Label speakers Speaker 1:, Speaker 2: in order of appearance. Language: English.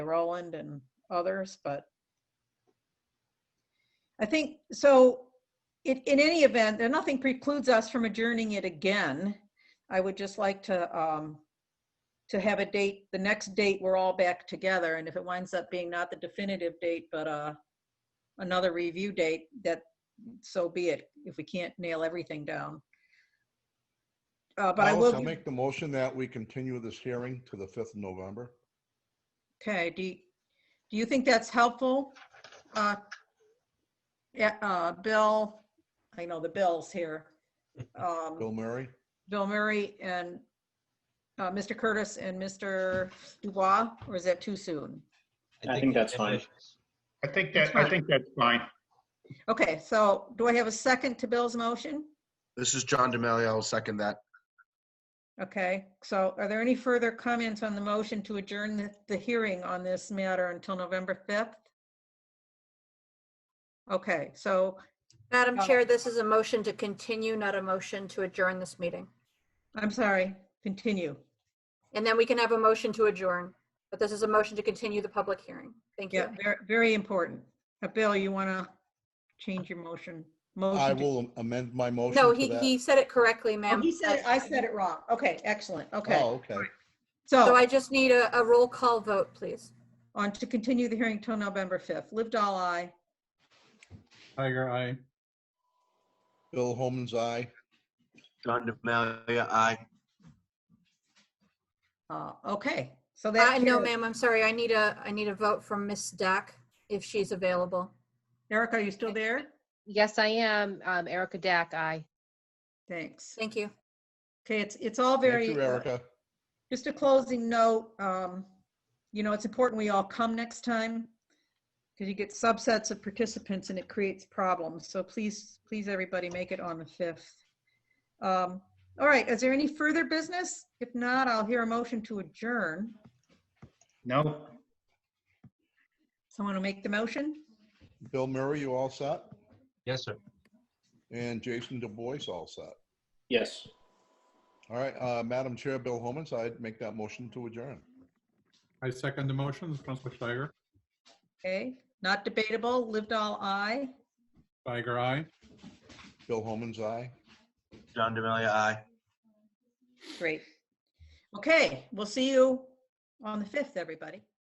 Speaker 1: Roland and others, but I think, so in, in any event, there, nothing precludes us from adjourning it again. I would just like to, um, to have a date, the next date, we're all back together, and if it winds up being not the definitive date, but, uh, another review date, that, so be it, if we can't nail everything down. Uh, but I
Speaker 2: Alice,
Speaker 1: will,
Speaker 2: I'll make the motion that we continue this hearing to the 5th of November.
Speaker 1: okay, do, you- do you think that's helpful? Uh, Yeah, uh, Bill, I know the Bill's here. Um,
Speaker 2: Bill Murray?
Speaker 1: Bill Murray and uh, Mr. Curtis and Mr. Dubois, or is that too soon?
Speaker 3: I think that's fine.
Speaker 4: I think
Speaker 1: That's
Speaker 4: that, I
Speaker 1: fine.
Speaker 4: think that's fine.
Speaker 1: Okay, so do I have a second to Bill's motion?
Speaker 5: This is John Demely. I'll second that.
Speaker 1: Okay, so are there any further comments on the motion to adjourn the- the hearing on this matter until November 5th? Okay, so,
Speaker 6: Madam
Speaker 1: Uh,
Speaker 6: Chair, this is a motion to continue, not a motion to adjourn this meeting.
Speaker 1: I'm sorry, continue.
Speaker 6: And then we can have a motion to adjourn, but this is a motion to continue the public hearing. Thank you.
Speaker 1: Yeah, very, very important. Uh, Bill, you want to change your motion?
Speaker 2: I
Speaker 1: Motion to-
Speaker 2: will amend my motion
Speaker 6: No,
Speaker 2: to
Speaker 6: he,
Speaker 2: that.
Speaker 6: he said it correctly,
Speaker 1: Oh,
Speaker 6: ma'am.
Speaker 1: He said, it- I said it wrong. Okay, excellent, okay.
Speaker 2: Oh, okay.
Speaker 1: Oh.
Speaker 6: So I just need a, a roll call vote, please.
Speaker 1: On to continue the hearing till November 5th. Lived all I.
Speaker 7: Tiger Eye.
Speaker 2: Bill Holman's aye.
Speaker 5: John Demalia, aye.
Speaker 1: Uh, Okay, so
Speaker 6: Uh,
Speaker 1: that.
Speaker 6: no,
Speaker 1: carries.
Speaker 6: ma'am, I'm sorry. I need a, I need a vote from Miss Dack if she's available.
Speaker 1: Eric, are you still there?
Speaker 8: Yes, I am. Um, Erica Dack, aye.
Speaker 1: Thanks.
Speaker 6: Thank you.
Speaker 1: Okay, it's, it's all
Speaker 2: Thank
Speaker 1: very.
Speaker 2: you,
Speaker 1: uh,
Speaker 2: Erica.
Speaker 1: Just a closing note, um, you know, it's important we all come next time because you get subsets of participants and it creates problems. So please, please, everybody, make it on the 5th. Um, All right, is there any further business? If not, I'll hear a motion to adjourn.
Speaker 4: No,
Speaker 1: Someone to make the motion?
Speaker 2: Bill Murray, you all set?
Speaker 3: Yes, sir.
Speaker 2: And Jason Du Bois all set?
Speaker 3: Yes.
Speaker 2: All right, uh, Madam Chair, Bill Holman's, I'd make that motion to adjourn.
Speaker 7: I second the motion, Councilor Steiger.
Speaker 1: Okay, not debatable, lived all I.
Speaker 7: Tiger Eye.
Speaker 2: Bill Holman's aye.
Speaker 5: John Demalia, aye.
Speaker 1: Great. Okay, we'll see you on the 5th, everybody.